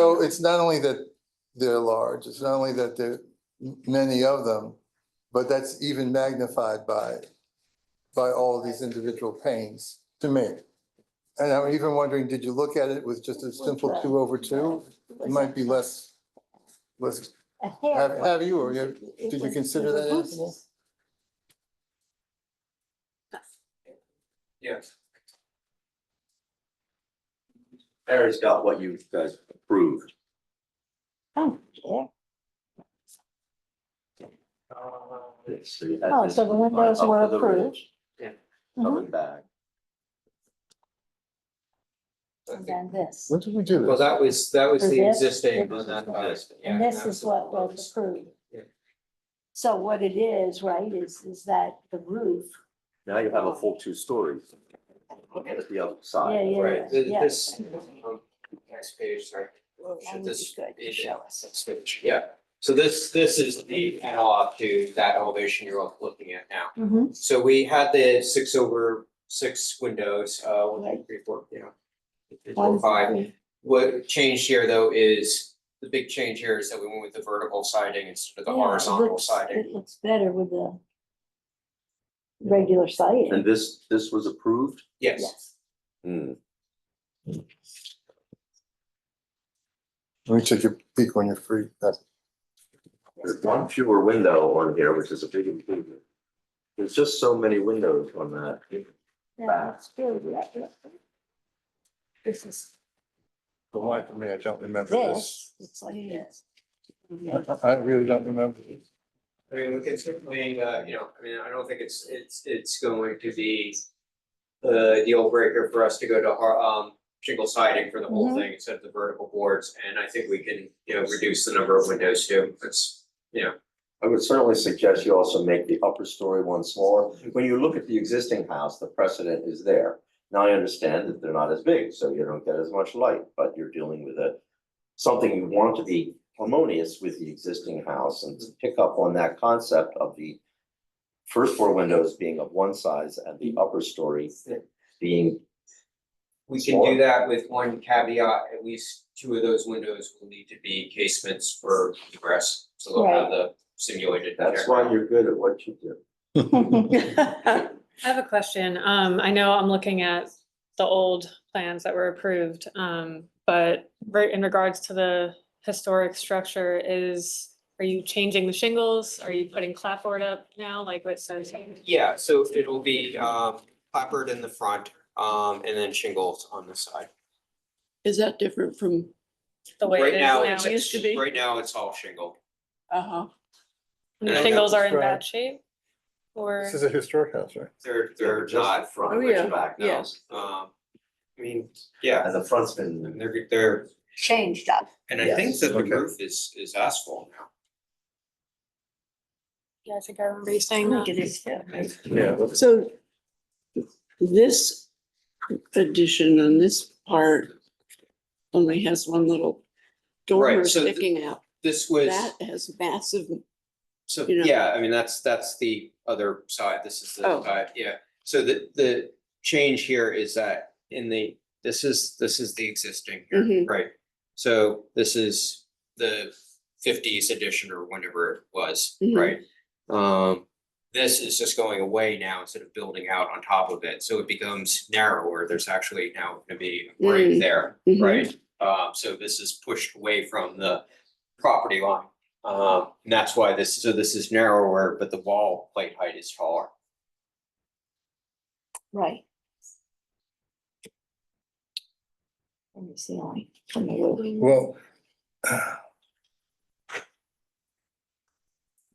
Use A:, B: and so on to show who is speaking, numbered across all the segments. A: they're, it's not only that they're large, it's not only that there are many of them, but that's even magnified by, by all these individual panes, to me. And I'm even wondering, did you look at it with just a simple two over two? It might be less, less,
B: A
A: have,
B: hair.
A: have you, or you,
B: It
A: did you
B: was-
A: consider
B: it was
A: that, Anthony?
B: useless.
C: Yes. Harry's got what you guys approved.
B: Oh, yeah.
C: Yes, so you had
B: Oh,
C: this
B: so the
C: one
B: windows
C: up to
B: were
C: the
B: approved.
C: ridge,
B: Mhm.
C: Coming back.
B: And then this.
A: When did we do this?
D: Well, that was, that was
B: For
D: the
B: this,
D: existing,
B: this
D: but not
B: is
D: the-
C: this.
D: yeah,
B: And this
D: that's
B: is what
D: one.
B: was approved.
D: Yeah.
B: So what it is, right, is, is that the roof,
C: Now you have a full two stories. Look at the other side.
B: Yeah,
D: Right, th-
B: yeah.
D: this, um, next page, sorry.
B: that would
D: This
B: be good to
D: is-
B: show us.
D: Next page, yeah. So this, this is the analog to that elevation you're all looking at now.
A: Mm-hmm.
B: Mhm.
D: So we had the six over six windows, uh, one, two, three, four, you know. three,
B: One,
D: Four,
B: two,
D: five.
B: three.
D: What changed here though is, the big change here is that we went with the vertical siding instead of the
B: Yeah, it
D: horizontal
B: looks-
D: siding.
B: It looks better with the regular siding,
C: And this, this was approved?
D: Yes,
B: yes.
C: Hmm.
A: Let me take a peek when you're free. That's-
C: There's one fewer window on here, which is a big improvement. There's just so many windows on that.
B: Yeah, it's good, yeah, yeah. This is
A: The life of me, I don't remember
B: this, it's like this. Yeah.
A: I- I really don't remember. this.
D: I mean, we can certainly, uh, you know, I mean, I don't think it's, it's, it's going to be the deal breaker for us to go to har- um, shingle siding for the whole
B: Mhm.
D: thing instead of the vertical boards, and I think we can, you know, reduce the number of windows too, that's, you know.
C: I would certainly suggest you also make the upper story one smaller. When you look at the existing house, the precedent is there. Now, I understand that they're not as big, so you don't get as much light, but you're dealing with a, something you want to be harmonious with the existing house and to pick up on that concept of the first floor windows being of one size and the upper story being,
D: We can do that with one caveat, at least two of those windows will need to be casements for egress, so they'll have the simulated.
C: that's why you're good at what you do.
E: I have a question. Um, I know I'm looking at the old plans that were approved, um, but right in regards to the historic structure is, are you changing the shingles? Are you putting clapboard up now, like what says?
D: Yeah, so it'll be, um, clapboard in the front, um, and then shingles on the side.
F: Is that different from,
E: the way it
D: Right
E: is
D: now,
F: now.
D: it's,
F: It used to be.
D: right now, it's all shingle.
F: uh-huh,
E: And the
D: Yeah,
E: shingles are in
A: that's right.
E: bad shape? Or,
A: This is a historic house, right?
D: They're, they're
C: Just the
D: not,
C: Front,
F: Oh, yeah.
C: which back now.
F: Yes.
D: um, I mean, yeah,
C: And the front's been
D: they're, they're,
B: Changed up.
D: and I think
C: Yes.
D: that the
A: Okay.
D: roof is, is asphalt now.
E: yeah, I think I remember you saying
B: Look
E: that.
B: at this, yeah.
A: Yeah.
F: so this addition on this part only has one little dormer
D: Right, so th-
F: sticking out.
D: This was,
F: That has massive,
D: so,
F: you know.
D: yeah, I mean, that's, that's the other side, this is the
F: Oh.
D: side, yeah. So the, the change here is that in the, this is, this is the existing here,
F: Mhm.
D: right? So this is the fifties edition or whenever it was,
F: Mhm.
D: right? Um, this is just going away now instead of building out on top of it, so it becomes narrower, there's actually now gonna be a grade
F: Mm.
D: there,
F: Mhm.
D: right? Um, so this is pushed away from the property line, um, and that's why this, so this is narrower, but the wall plate height is taller.
B: Right. Let me see, only from the roof.
A: Well,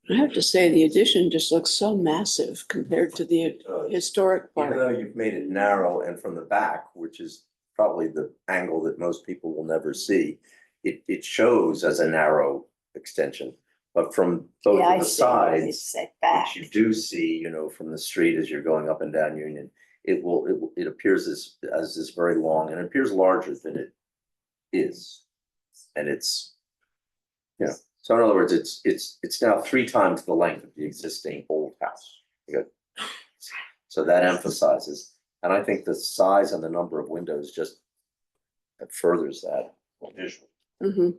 F: I have to say, the addition just looks so massive compared to the
C: uh,
F: historic
C: Even
F: part.
C: though you've made it narrow and from the back, which is probably the angle that most people will never see, it, it shows as a narrow extension. But from both
B: Yeah, I
C: of the
B: see what you
C: sides,
B: said
C: which
B: back.
C: you do see, you know, from the street as you're going up and down Union, it will, it, will- it appears as, as this very long and appears larger than it is. And it's, you know, so in other words, it's, it's, it's now three times the length of the existing old house. You got- So that emphasizes, and I think the size and the number of windows just furthers that visual.
F: Mhm.